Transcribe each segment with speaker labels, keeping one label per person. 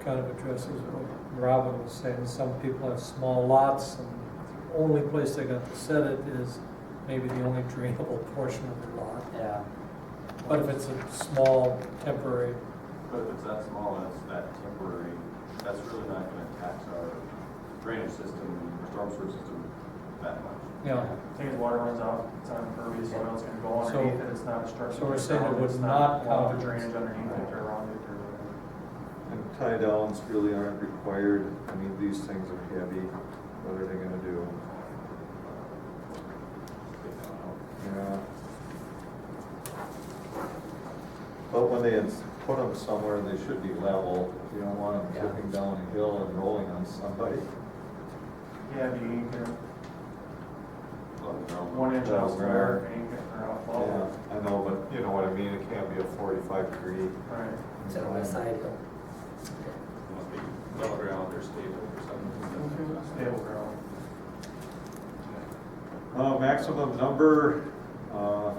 Speaker 1: kind of addresses what Robin was saying, some people have small lots, and the only place they got to set it is maybe the only drainable portion of the lot.
Speaker 2: Yeah,
Speaker 1: But if it's a small temporary,
Speaker 3: But if it's that small, and it's that temporary, that's really not gonna tax our drainage system, our storm sewer system that much.
Speaker 1: you know,
Speaker 4: Take his water runs out, it's on impervious soil, it's gonna go
Speaker 1: So-
Speaker 4: underneath it, it's not obstruction.
Speaker 1: so we're saying it
Speaker 4: it's
Speaker 1: would not
Speaker 4: allow for
Speaker 1: count.
Speaker 4: Drainage underneath it or around it or whatever.
Speaker 5: And tie downs really aren't required, I mean, these things are heavy, what are they gonna do? Yeah. But when they ins- put them somewhere, they should be level, you don't want
Speaker 2: Yeah.
Speaker 5: them tipping down a hill and rolling on somebody.
Speaker 4: Yeah, it'd be an acre,
Speaker 3: One
Speaker 4: one inch
Speaker 5: Yeah,
Speaker 4: out square,
Speaker 5: right.
Speaker 4: an acre or out
Speaker 5: Yeah,
Speaker 4: tall.
Speaker 5: I know, but you know what I mean, it can't be a forty-five degree.
Speaker 4: Right.
Speaker 2: so on the side hill.
Speaker 3: Must be level ground or stable or something.
Speaker 4: Stable ground.
Speaker 5: Uh, maximum number, uh,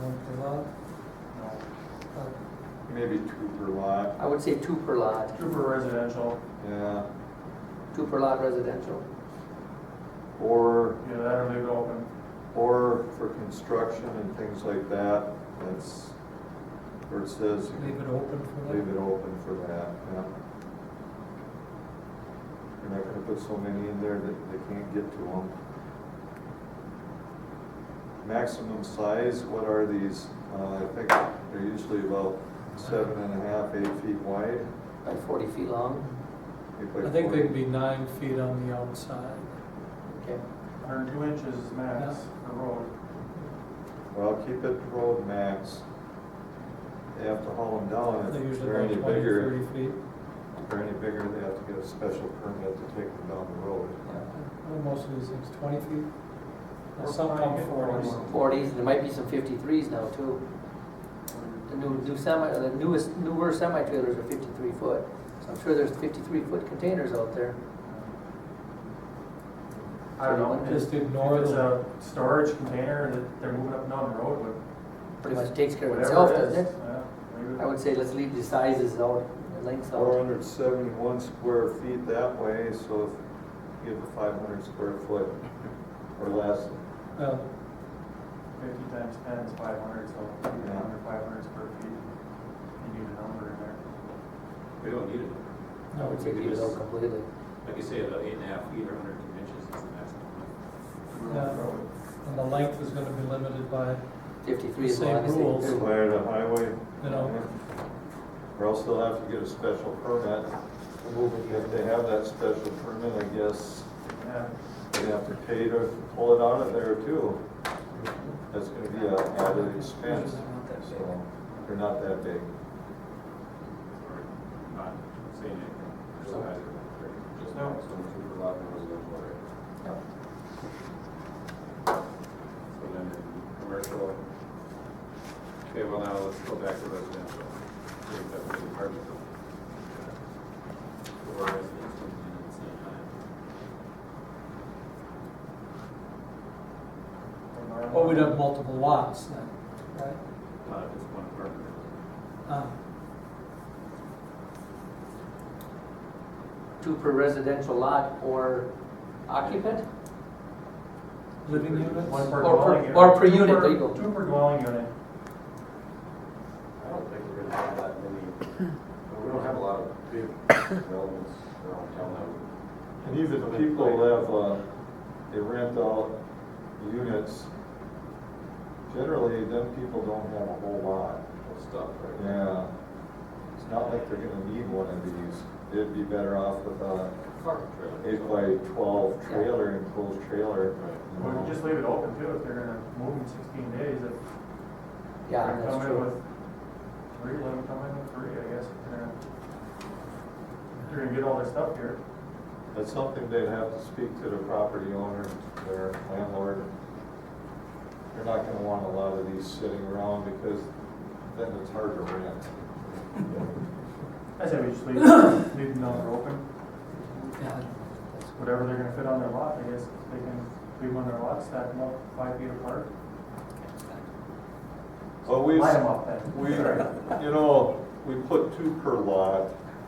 Speaker 1: one per lot,
Speaker 4: No.
Speaker 1: uh,
Speaker 5: maybe two per lot,
Speaker 2: I would say two per lot,
Speaker 4: Trooper residential,
Speaker 5: yeah,
Speaker 2: two per lot residential.
Speaker 5: or
Speaker 4: yeah, that'll leave it open.
Speaker 5: Or for construction and things like that, that's where it says,
Speaker 1: leave it open for
Speaker 5: leave
Speaker 1: that.
Speaker 5: it open for that, yeah. You're not gonna put so many in there that they can't get to them. Maximum size, what are these? Uh, I think they're usually about seven and a half, eight feet wide.
Speaker 2: Like forty feet long,
Speaker 5: Eight by
Speaker 1: I think they
Speaker 5: 40.
Speaker 1: can be nine feet on the outside.
Speaker 2: okay,
Speaker 4: Hundred and two inches is max for road.
Speaker 5: Well, keep it road max. They have to haul them down
Speaker 1: They're
Speaker 5: if
Speaker 1: usually
Speaker 5: they're any
Speaker 1: about twenty,
Speaker 5: bigger.
Speaker 1: thirty feet,
Speaker 5: If they're any bigger, they have to get a special permit to take them down the road.
Speaker 2: yeah.
Speaker 1: Well, most of these things, twenty feet. Now,
Speaker 4: Or
Speaker 1: Some come
Speaker 4: five,
Speaker 1: forty.
Speaker 4: or-
Speaker 2: Forties, there might be some fifty-threes now too. The new, new semi, the newest, newer semi-trailers are fifty-three foot, so I'm sure there's fifty-three foot containers out there.
Speaker 4: I don't know.
Speaker 1: Just
Speaker 4: if-
Speaker 1: ignore
Speaker 4: If it's
Speaker 1: the-
Speaker 4: a storage container that they're moving up and down the road with,
Speaker 2: Pretty much takes care of itself,
Speaker 4: whatever it
Speaker 2: doesn't
Speaker 4: is.
Speaker 2: it?
Speaker 4: yeah, leave it.
Speaker 2: I would say let's leave the sizes out, the lengths
Speaker 5: Four
Speaker 2: out.
Speaker 5: hundred seventy-one square feet that way, so if you have a five hundred square foot or less,
Speaker 1: Uh,
Speaker 4: Fifty times ten is five hundred, so even
Speaker 5: Yeah.
Speaker 4: under five hundred square feet, you need a number in there.
Speaker 3: We don't need it.
Speaker 2: I
Speaker 1: no,
Speaker 2: would say leave it out completely.
Speaker 3: Like you say, about eight and a half feet or hundred and ten inches is the maximum.
Speaker 1: Yeah. and the length is gonna be limited by,
Speaker 2: Fifty-three is the
Speaker 1: Same
Speaker 2: longest
Speaker 1: rules.
Speaker 2: they can do.
Speaker 5: way to highway.
Speaker 1: you know,
Speaker 5: Or else they'll have to get a special permit. If they have that special permit, I guess
Speaker 4: Yeah,
Speaker 5: they have to pay to pull it out of there too. That's gonna be a added expense, so they're not that big.
Speaker 3: Or not saying anything. Just either. Just
Speaker 4: No.
Speaker 3: so much for lot and residential area.
Speaker 2: Yep.
Speaker 3: So then in commercial. Okay, well now let's go back to residential. See if that was the apartment building. Or residential and at the same time.
Speaker 2: Oh,
Speaker 1: well, we'd have multiple lots then, right?
Speaker 3: Not if it's one apartment building.
Speaker 1: Uh,
Speaker 2: Two per residential lot or occupant?
Speaker 1: Living units?
Speaker 4: One per
Speaker 2: Or per-
Speaker 4: dwelling unit.
Speaker 2: or per unit,
Speaker 4: Two per-
Speaker 2: there you go.
Speaker 4: Two per dwelling unit.
Speaker 3: I don't think we're gonna have that many, we don't have a lot of big developments around town.
Speaker 5: And even people have, uh, they rent out units. Generally, them people don't have a whole lot.
Speaker 3: that Stuff, right?
Speaker 5: Yeah. It's not like they're gonna need one of these. They'd be better off with a
Speaker 3: Apartment trailer.
Speaker 5: eight by twelve trailer, enclosed trailer. you
Speaker 4: We can
Speaker 5: know.
Speaker 4: just leave it open too, if they're gonna move in sixteen days, if
Speaker 2: Yeah,
Speaker 4: they're
Speaker 2: that's
Speaker 4: coming
Speaker 2: true.
Speaker 4: with three, let them come in with three, I guess. if They're gonna- if They're gonna get all their stuff here.
Speaker 5: That's something they'd have to speak to the property owner, their landlord. They're not gonna want a lot of these sitting around because then it's hard to rent.
Speaker 4: I say we just leave, leave the number open,
Speaker 2: Yeah.
Speaker 4: whatever they're gonna fit on their lot, I guess, they can leave on their lot, stack them up five feet apart.
Speaker 5: But we've.
Speaker 4: Line them up then.
Speaker 5: We,
Speaker 4: Sorry.
Speaker 5: you know, we put two per lot,